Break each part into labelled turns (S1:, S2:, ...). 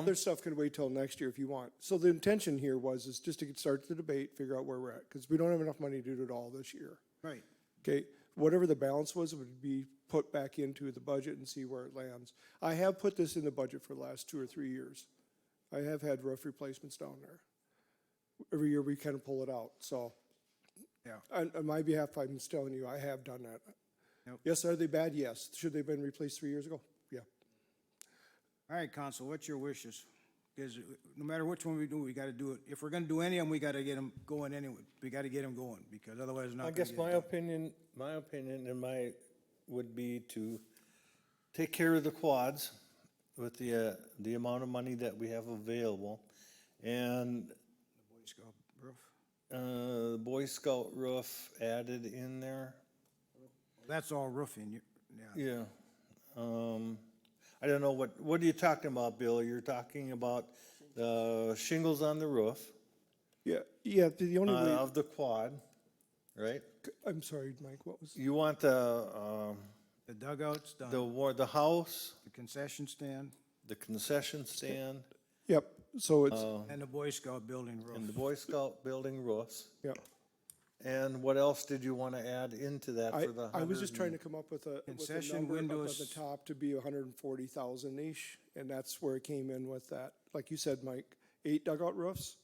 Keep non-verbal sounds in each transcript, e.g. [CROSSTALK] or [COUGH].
S1: Other stuff can wait till next year if you want. So the intention here was, is just to get start the debate, figure out where we're at, because we don't have enough money to do it all this year.
S2: Right.
S1: Okay, whatever the balance was, would be put back into the budget and see where it lands. I have put this in the budget for the last two or three years. I have had rough replacements down there. Every year we kind of pull it out, so.
S2: Yeah.
S1: On, on my behalf, I'm just telling you, I have done that.
S2: Yep.
S1: Yes, are they bad? Yes. Should they have been replaced three years ago? Yeah.
S2: All right, council, what's your wishes? Because no matter which one we do, we gotta do it. If we're gonna do any of them, we gotta get them going anyway. We gotta get them going, because otherwise it's not
S3: I
S2: gonna
S3: guess
S2: get
S3: my
S2: done.
S3: opinion, my opinion and my, would be to take care of the quads with the, uh, the amount of money that we have available. And,
S2: Boy Scout roof.
S3: uh, Boy Scout roof added in there,
S2: That's all roofing, you- yeah.
S3: yeah. Um, I don't know, what, what are you talking about, Bill? You're talking about the shingles on the roof,
S1: Yeah, yeah, the the
S3: uh,
S1: only way,
S3: of the quad, right?
S1: I'm sorry, Mike, what was?
S3: You want the, um,
S2: The dugouts
S3: the
S2: done,
S3: war, the house,
S2: the concession stand,
S3: the concession stand,
S1: Yep, so it's,
S2: and the Boy Scout building
S3: and the
S2: roof.
S3: Boy Scout building roofs.
S1: yep.
S3: And what else did you want to add into that
S1: I,
S3: for the
S1: I was just
S3: hundred
S1: trying
S3: and-
S1: to come up with a, with a
S2: Concession
S1: number up at the
S2: windows.
S1: top to be hundred and forty thousand ish, and that's where it came in with that. Like you said, Mike, eight dugout roofs,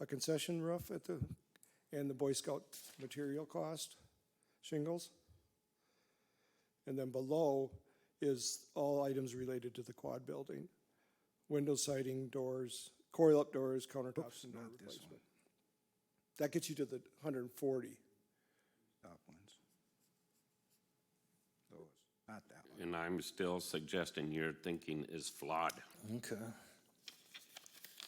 S1: a concession roof at the, and the Boy Scout material cost, shingles. And then below is all items related to the quad building. Window siding, doors, coil-up doors, countertops, and door
S2: not this
S1: replacement. That gets you to the hundred and forty.
S2: Top ones. Those, not that one.
S4: And I'm still suggesting your thinking is flawed.
S3: Okay.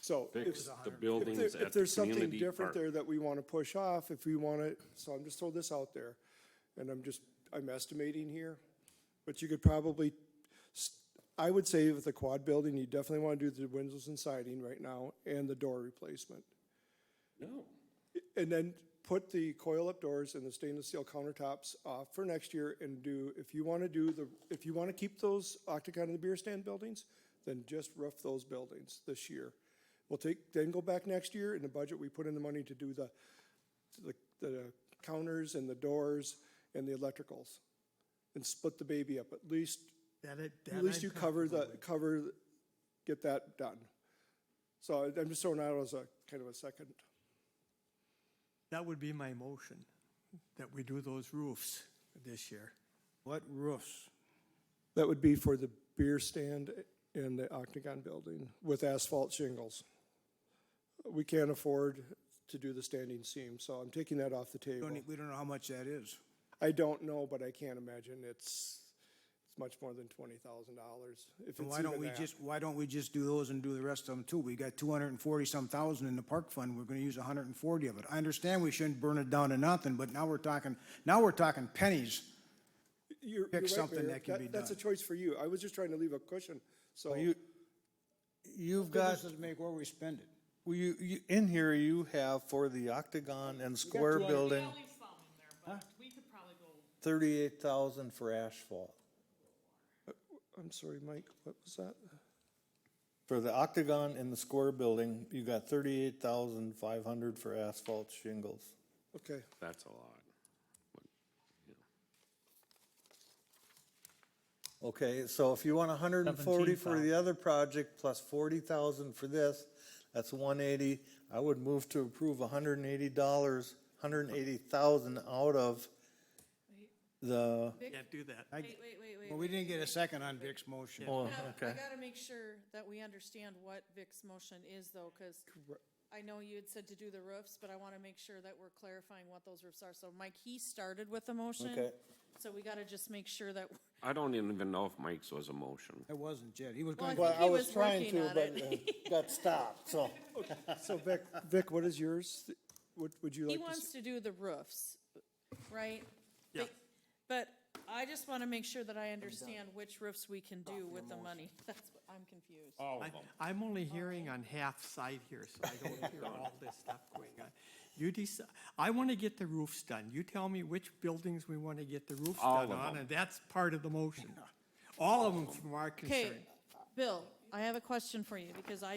S1: So. if-
S4: Fix the buildings
S1: If there-
S4: at
S1: if
S4: the
S1: there's something
S4: community
S1: different
S4: park.
S1: there that we want to push off, if we want to, so I'm just throwing this out there. And I'm just, I'm estimating here, but you could probably, s- I would say with the quad building, you definitely want to do the windows and siding right now and the door replacement.
S4: No,
S1: And then put the coil-up doors and the stainless steel countertops off for next year and do, if you want to do the, if you want to keep those Octagon and the beer stand buildings, then just roof those buildings this year. We'll take, then go back next year in the budget, we put in the money to do the, the, the counters and the doors and the electricals. And split the baby up, at least, at least you cover the, cover, get that done. So I'm just throwing out as a, kind of a second.
S5: That would be my motion, that we do those roofs this year.
S2: What roofs?
S1: That would be for the beer stand and the Octagon building with asphalt shingles. We can't afford to do the standing seam, so I'm taking that off the table.
S2: Don't, e- we don't know how much that is.
S1: I don't know, but I can't imagine it's, it's much more than twenty thousand dollars, if
S2: So
S1: it's
S2: why don't
S1: even
S2: we
S1: that.
S2: just, why don't we just do those and do the rest of them too? We got two hundred and forty some thousand in the park fund, we're gonna use hundred and forty of it. I understand we shouldn't burn it down to nothing, but now we're talking, now we're talking pennies.
S1: You're-
S2: pick
S1: you're right,
S2: something
S1: Mayor.
S2: that can be
S1: That's a
S2: done.
S1: choice for you. I was just trying to leave a cushion, so.
S3: You, you've got,
S2: This is make where we spend it.
S3: well, you, you, in here you have for the octagon and square
S2: 200
S3: building,
S6: Yeah, leave some in there, but we could probably go,
S3: thirty-eight thousand for asphalt.
S1: I'm sorry, Mike, what was that?
S3: For the octagon and the square building, you got thirty-eight thousand five hundred for asphalt shingles.
S1: Okay,
S4: that's a lot.
S3: Okay, so if you want hundred and forty for the other project plus forty thousand for this, that's one eighty. I would move to approve hundred and eighty dollars, hundred and eighty thousand out of the,
S5: Can't do that.
S2: I-
S6: wait, wait, wait, wait.
S2: Well, we didn't get a second on Vic's motion.
S3: oh,
S6: Now, I
S3: okay.
S6: gotta make sure that we understand what Vic's motion is though, cause I know you had said to do the roofs, but I wanna make sure that we're clarifying what those roofs are. So Mike, he started with the motion.
S3: Okay.
S6: So we gotta just make sure that,
S4: I don't even know if Mike's was a motion.
S2: It wasn't Jed, he was
S6: well, I
S2: going,
S6: think
S3: I
S6: he
S3: was
S6: was
S3: trying
S6: working
S3: to,
S6: on
S3: but
S6: it.
S3: uh, got
S1: [LAUGHS]
S3: stopped, so.
S1: so Vic, Vic, what is yours? What would you like
S6: He
S1: to see?
S6: wants to do the roofs, right?
S5: Yeah.
S6: They- But I just wanna make sure that I understand which roofs we can do with the money. [LAUGHS] That's what, I'm confused.
S5: I- I'm only hearing on half side here, so I don't
S4: [LAUGHS]
S5: hear all this stuff going on. You decide, I want to get the roofs done. You tell me which buildings we want to get the roofs
S4: All
S5: done
S4: of
S5: on,
S4: them. [LAUGHS]
S5: and that's part of the motion. All of them from our
S6: Okay,
S5: concern.
S6: Bill, I have a question for you because I